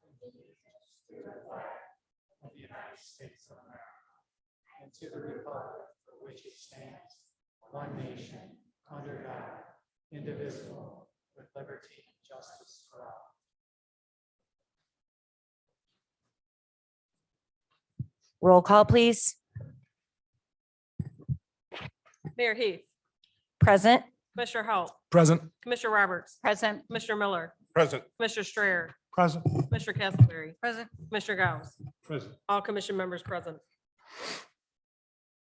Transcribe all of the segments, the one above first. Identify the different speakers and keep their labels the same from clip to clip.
Speaker 1: To the flag of the United States of America. And to the republic for which it stands, one nation, under God, indivisible, with liberty and justice for all.
Speaker 2: Roll call, please.
Speaker 3: Mayor Heath,
Speaker 2: Present.
Speaker 3: Commissioner Halt,
Speaker 4: Present.
Speaker 3: Commissioner Roberts,
Speaker 2: Present.
Speaker 3: Commissioner Miller,
Speaker 4: Present.
Speaker 3: Commissioner Strayer,
Speaker 4: Present.
Speaker 3: Commissioner Castleberry,
Speaker 2: Present.
Speaker 3: Commissioner Gauss,
Speaker 4: Present.
Speaker 3: all commission members present.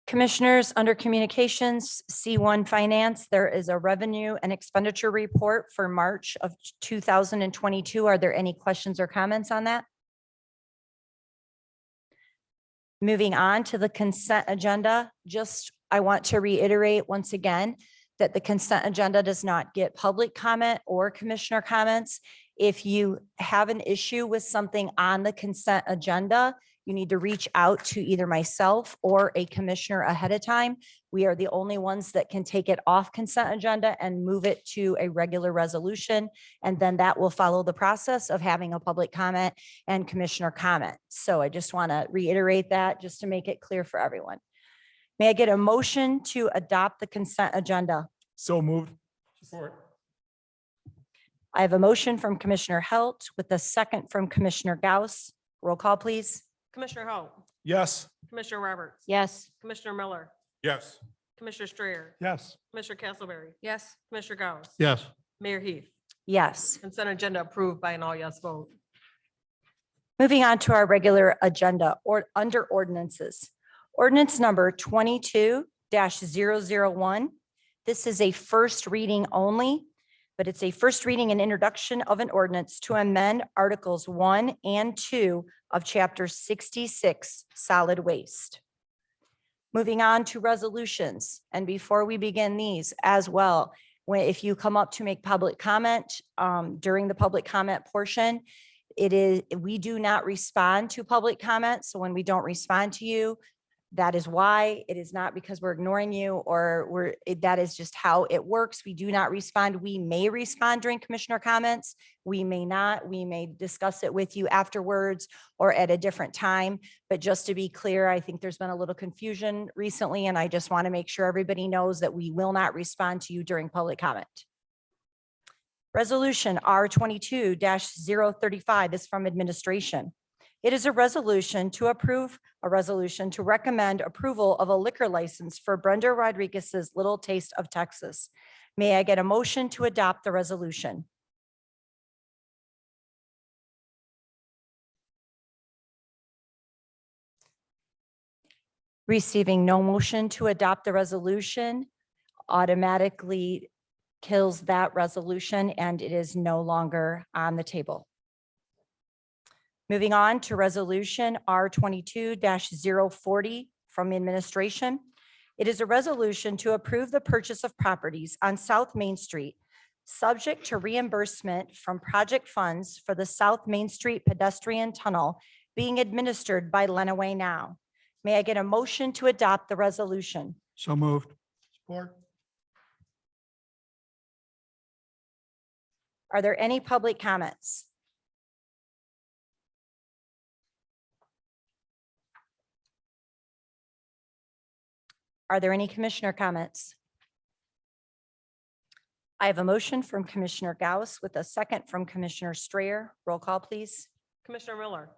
Speaker 2: Commissioners, under Communications, C1 Finance, there is a revenue and expenditure report for March of 2022. Are there any questions or comments on that? Moving on to the consent agenda, just, I want to reiterate once again that the consent agenda does not get public comment or commissioner comments. If you have an issue with something on the consent agenda, you need to reach out to either myself or a commissioner ahead of time. We are the only ones that can take it off consent agenda and move it to a regular resolution. And then that will follow the process of having a public comment and commissioner comment. So I just want to reiterate that just to make it clear for everyone. May I get a motion to adopt the consent agenda?
Speaker 4: So moved. Support.
Speaker 2: I have a motion from Commissioner Halt with a second from Commissioner Gauss. Roll call, please.
Speaker 3: Commissioner Halt,
Speaker 4: Yes.
Speaker 3: Commissioner Roberts,
Speaker 2: Yes.
Speaker 3: Commissioner Miller,
Speaker 4: Yes.
Speaker 3: Commissioner Strayer,
Speaker 4: Yes.
Speaker 3: Commissioner Castleberry. Yes. Commissioner Gauss.
Speaker 4: Yes.
Speaker 3: Mayor Heath,
Speaker 2: Yes.
Speaker 3: consent agenda approved by an all yes vote.
Speaker 2: Moving on to our regular agenda or under ordinances. Ordinance number twenty-two one This is a first reading only, but it's a first reading and introduction of an ordinance to amend Articles one and two of Chapter sixty-six, solid waste. Moving on to resolutions, and before we begin these as well, when, if you come up to make public comment um, during the public comment portion, it is, we do not respond to public comments, so when we don't respond to you, that is why. It is not because we're ignoring you or we're, it- that is just how it works. We do not respond. We may respond during commissioner comments. We may not. We may discuss it with you afterwards or at a different time. But just to be clear, I think there's been a little confusion recently, and I just want to make sure everybody knows that we will not respond to you during public comment. Resolution R twenty-two 35 is from administration. It is a resolution to approve, a resolution to recommend approval of a liquor license for Brenda Rodriguez's Little Taste of Texas. May I get a motion to adopt the resolution? Receiving no motion to adopt the resolution automatically kills that resolution and it is no longer on the table. Moving on to Resolution R twenty-two 40 from Administration. It is a resolution to approve the purchase of properties on South Main Street, subject to reimbursement from project funds for the South Main Street pedestrian tunnel being administered by Lenaway Now. May I get a motion to adopt the resolution?
Speaker 4: So moved. Support.
Speaker 2: Are there any public comments? Are there any commissioner comments? I have a motion from Commissioner Gauss with a second from Commissioner Strayer. Roll call, please.
Speaker 3: Commissioner Miller,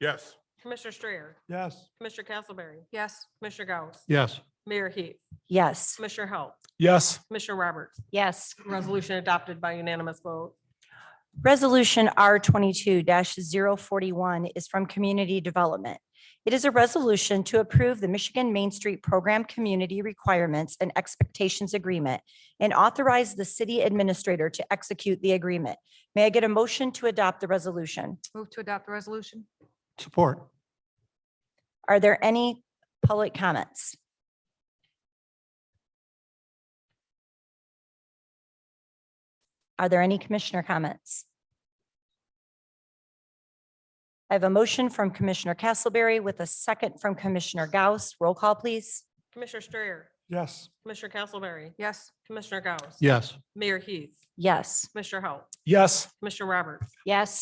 Speaker 4: Yes.
Speaker 3: Commissioner Strayer,
Speaker 4: Yes.
Speaker 3: Commissioner Castleberry. Yes. Commissioner Gauss,
Speaker 4: Yes.
Speaker 3: Mayor Heath,
Speaker 2: Yes.
Speaker 3: Commissioner Halt,
Speaker 4: Yes.
Speaker 3: Commissioner Roberts,
Speaker 2: Yes.
Speaker 3: resolution adopted by unanimous vote.
Speaker 2: Resolution R twenty-two 41 is from Community Development. It is a resolution to approve the Michigan Main Street Program Community Requirements and Expectations Agreement and authorize the city administrator to execute the agreement. May I get a motion to adopt the resolution?
Speaker 5: Move to adopt the resolution?
Speaker 4: Support.
Speaker 2: Are there any public comments? Are there any commissioner comments? I have a motion from Commissioner Castleberry with a second from Commissioner Gauss. Roll call, please.
Speaker 3: Commissioner Strayer,
Speaker 4: Yes.
Speaker 3: Commissioner Castleberry,
Speaker 5: Yes.
Speaker 3: Commissioner Gauss.
Speaker 4: Yes.
Speaker 3: Mayor Heath,
Speaker 2: Yes.
Speaker 3: Commissioner Halt,
Speaker 4: Yes.
Speaker 3: Commissioner Roberts,
Speaker 2: Yes.